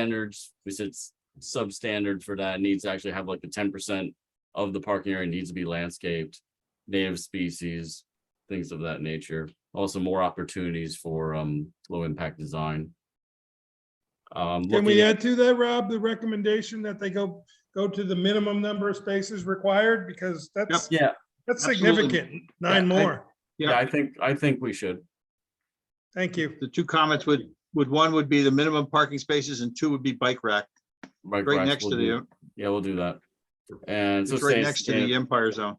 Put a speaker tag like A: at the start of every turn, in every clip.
A: standards, we said s- substandard for that needs to actually have like the ten percent of the parking area needs to be landscaped, native species, things of that nature. Also more opportunities for um low impact design. Um,
B: Can we
A: looking-
B: add to that, Rob, the recommendation that they go, go to the minimum number of spaces required? Because that's,
A: Yeah,
B: that's
C: absolutely.
B: significant, nine
C: Yeah, I-
B: more.
A: yeah, I think, I think we should.
B: Thank you.
C: The two comments would, would, one would be the minimum parking spaces and two would be bike rack,
A: Bike
C: right
A: racks,
C: next to
A: we'll do-
C: the,
A: Yeah, we'll do that. And so.
C: it's right
A: say
C: next to
A: sustain-
C: the Empire Zone.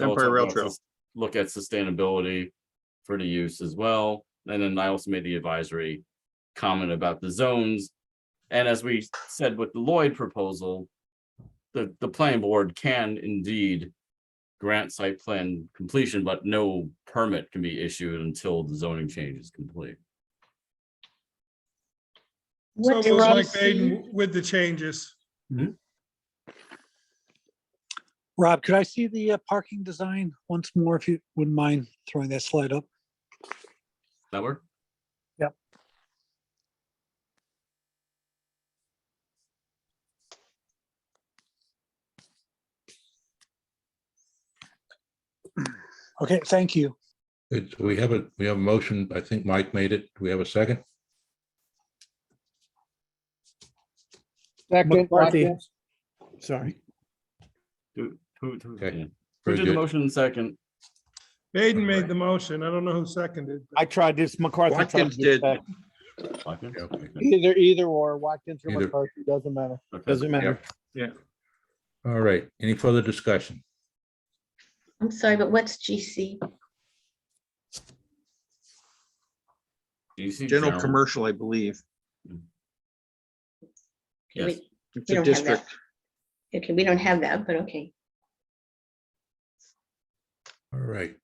A: So we'll
C: Empire
A: talk
C: Rail
A: about
C: Trail.
A: sus- Look at sustainability for the use as well. And then I also made the advisory comment about the zones. And as we said with the Lloyd proposal, the, the planning board can indeed grant site plan completion, but no permit can be issued until the zoning change is complete.
B: So
D: What
B: it was like
D: Rob,
B: Baden with the changes.
E: Rob, could I see the uh, parking design once more, if you wouldn't mind throwing that slide up?
A: That work?
E: Yep. Okay, thank you.
F: It's, we have a, we have a motion. I think Mike made it. Do we have a second?
G: Second,
H: McCarthy.
G: Watkins. Sorry.
A: Who, who, who-
F: Okay,
A: yeah. Who
F: Very
A: did the
F: good.
A: motion in second?
B: Baden made the motion. I don't know who seconded.
G: I tried this McCarthy. tried
C: Watkins
G: this
C: did.
G: back.
A: Watkins?
F: Okay.
G: Either, either or Watkins or
F: Either.
G: McCarthy, doesn't matter.
A: Okay.
G: Doesn't matter.
F: All right. Any further discussion?
D: I'm sorry, but what's GC?
A: Do you see
C: General commercial, I believe.
D: Okay,
A: Yes.
D: we-
C: It's a
D: We don't have that.
C: district.
D: Okay, we don't have that, but okay.
F: All right.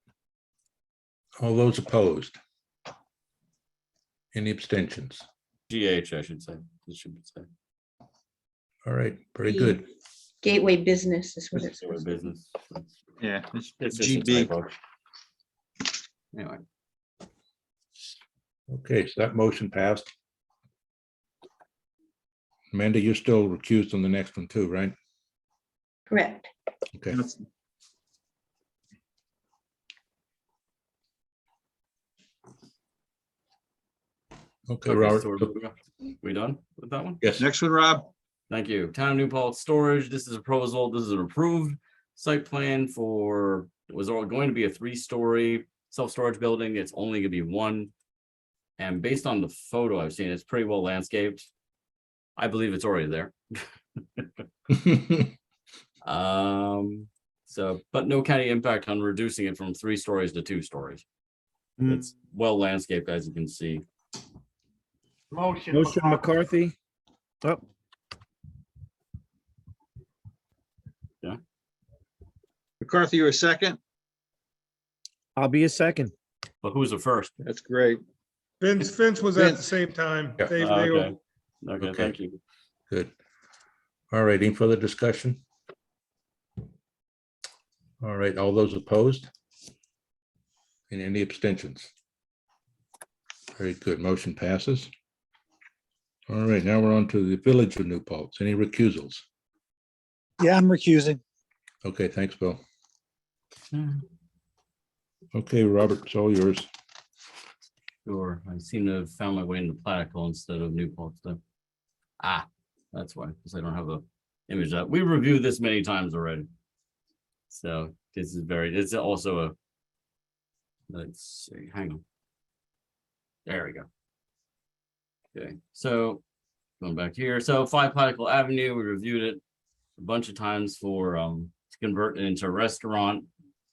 F: All those opposed? Any abstentions?
A: GH, I should say. It should be said.
F: All right, very
D: The
F: good.
D: Gateway business is what it's.
A: Or Business.
C: Yeah, it's
A: It's just a
C: GB.
A: typo. Anyway,
F: Okay, so that motion passed. Amanda, you're still recused on the next one too, right?
D: Correct.
F: Okay. Okay,
A: okay,
F: Robert.
A: so we're- we done with that one?
F: Yes,
C: Next one, Rob.
A: Thank you. Town of New Paltz Storage, this is a proposal, this is an approved site plan for, it was all going to be a three-story self-storage building, it's only gonna be one. And based on the photo I've seen, it's pretty well landscaped. I believe it's already there. Um, so, but no county impact on reducing it from three stories to two stories.
G: Mm.
A: It's well landscaped, as you can see.
G: Motion McCarthy. Oh,
C: McCarthy, you're a second?
G: I'll be a second.
A: But who's the first?
C: That's great.
B: Vince, Vince was at the
C: Vince.
B: same time.
F: Yeah.
B: They, they
A: Ah,
B: were,
A: okay. Okay,
F: Okay.
A: thank you.
F: Good. All right, any further discussion? All right, all those opposed? And any abstentions? Very good, motion passes. All right, now we're on to the Village of New Paltz. Any recusals?
E: Yeah, I'm recusing.
F: Okay, thanks, Bill.
A: Mhm.
F: Okay, Robert, it's all yours.
A: Sure, I seem to have found my way into Platicle instead of Newport stuff. Ah, that's why, because I don't have the image up. We reviewed this many times already. So this is very, it's also a. Let's see, hang on. There we go. Okay, so going back here, so five Platicle Avenue, we reviewed it a bunch of times for um to convert it into a restaurant.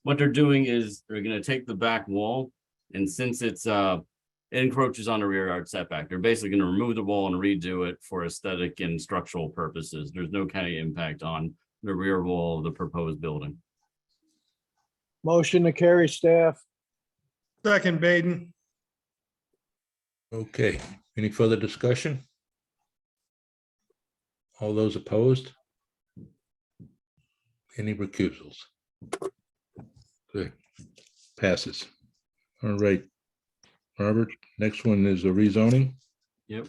A: What they're doing is they're gonna take the back wall and since it's uh encroaches on the rear yard setback, they're basically gonna remove the wall and redo it for aesthetic and structural purposes. There's no county impact on the rear wall of the proposed building.
G: Motion to carry staff.
B: second Baden.
F: Okay, any further discussion? All those opposed? Any recusals? Good, passes. All right. Robert, next one is a rezoning.
A: Yep.